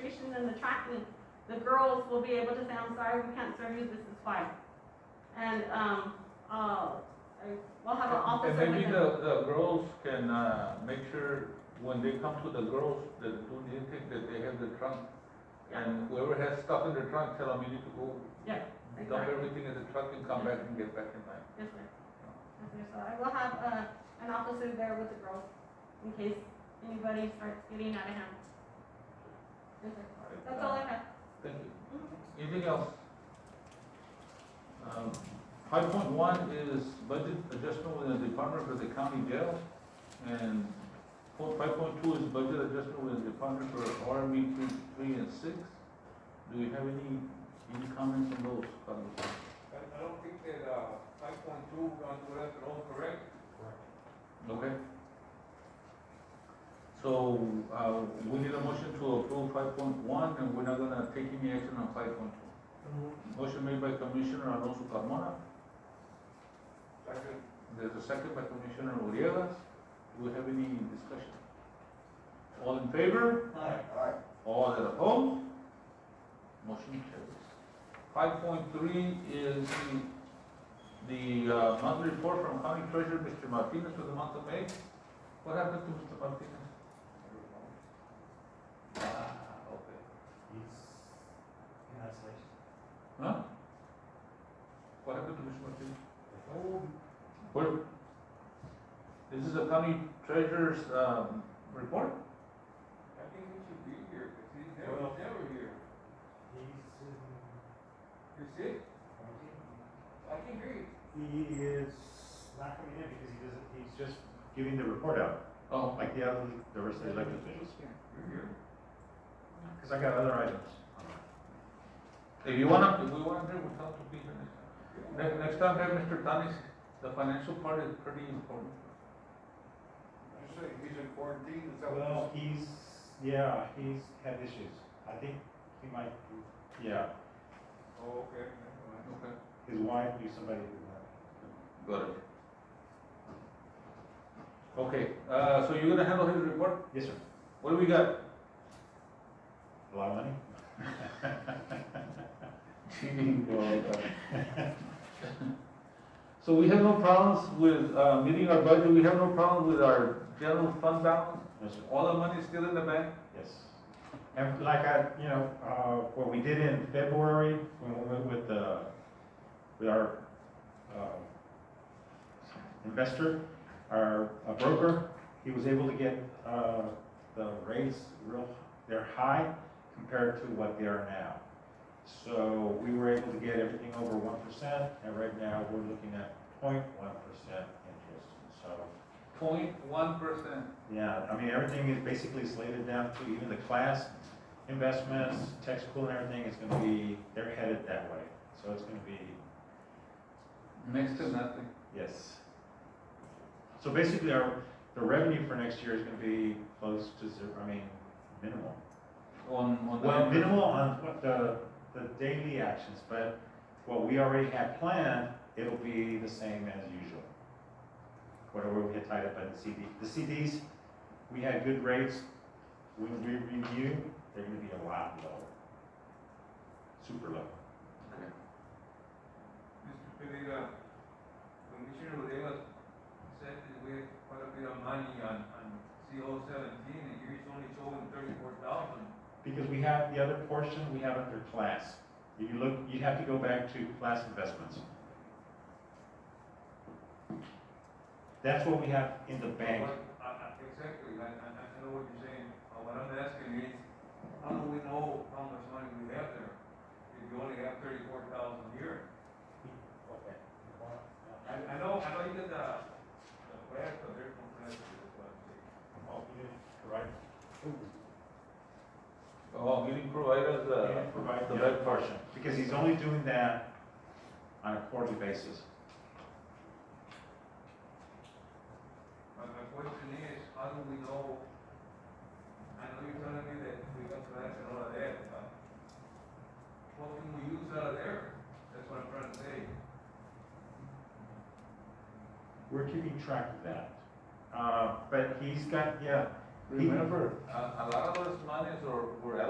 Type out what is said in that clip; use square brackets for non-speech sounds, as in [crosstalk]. and the track, and the girls will be able to say, I'm sorry, we can't serve you, this is why. And, um, uh, we'll have an officer And with Uh, maybe them. the, the girls can, uh, make sure when they come to the girls, that do the intake, that they have the trunk. Yeah. And whoever has stuff in the trunk, tell them you need to go. Yeah, Dump exactly. everything in the truck and come back and get back in line. Yes, sir. Yes, sir. So I will have, uh, an officer there with the girls in case anybody starts getting out of hand. Yes, sir. That's all I have. Thank you. Mhm. Anything else? Five Um, point one is budget adjustment within the department for the county jail. And five point two is budget adjustment within the department for RME three, three and six. Do we have any, any comments on those? Carlos? I, I don't think that, uh, five point two, we're gonna do that alone, correct? Okay. So, uh, we need a motion to approve five point one and we're not gonna take any action on five point two. Motion made by Commissioner Alonso Carmona. Second. There's a second by Commissioner Urielas. Do we have any discussion? All in favor? Aye. All that opposed? Motion carries. Five point three is the, the uh, monthly report from County Treasurer, Mr. Martinez, for the month of May. What happened to Mr. Martinez? Ah, okay. Huh? What happened to Mr. Martinez? Where? This is the County Treasurer's, um, report? I think he should be here, cause he's never, Well- never here. You're sick? I can hear you. He is not coming in because he doesn't, he's just giving the report out, Oh, like the other, the rest of the elected officials. You're here. Because I got other items. if you wanna, if we wanna do, we'll have to be here next time. Ne- next time, have Mr. Tanis, the financial part is pretty important. You say he's in quarantine, is Well, he's, yeah, he's had issues. I think he might, be- yeah, Oh, okay. never mind. Okay. his wife knew somebody who, Got it. Okay, uh, so you're gonna handle his report? uh, yes, sir, What do we got? a lot of money? [laughs] So we have no problems with, uh, meeting our budget, we have no problem with our general fund balance? No, sir. All the money is still in the bank? Yes. And like I, you know, uh, what we did in February, when we went with, uh, with our, uh, investor, our uh, broker, he was able to get, uh, the rates real, they're high compared to what they are now. So we were able to get everything over one percent, and right now, we're looking at point one percent interest. So, Point one percent. yeah, I mean, everything is basically slated down to even the class investments, tech school and everything is gonna be, they're headed that way. So it's gonna be, Next to nothing. yes. So basically, our, the revenue for next year is gonna be close to zero, I mean, minimal. On, on the. Well, minimal on what the, the daily actions, but what we already had planned, it'll be the same as usual. Whatever we had tied up in the CD, the CDs, we had good rates, when we review, they're gonna be a lot lower. Super low. Mr. Pereira, Commissioner Ureva said that we have quite a bit of money on, on CO seventeen, and you're only showing thirty-four thousand. Because we have the other portion, we have under class. You look, you'd have to go back to class investments. That's what we have in the bank. I- I- Exactly, I, I, I know what you're saying, Uh, what I'm asking is, how do we know how much money we have there? If you only have thirty-four thousand here? I, I know, I know you did the, the graph, but there's no graph to this one. Right. Oh, you didn't provide us, uh, Provide the the red red portion, because he's only doing that on a quarterly basis. My, my question is, how do we know? I know you're telling me that we got grants and all of that, but what can we use out of there? That's what I'm trying to say. We're keeping track of that. Uh, but he's got, yeah, remember, a, a lot of those monies are, were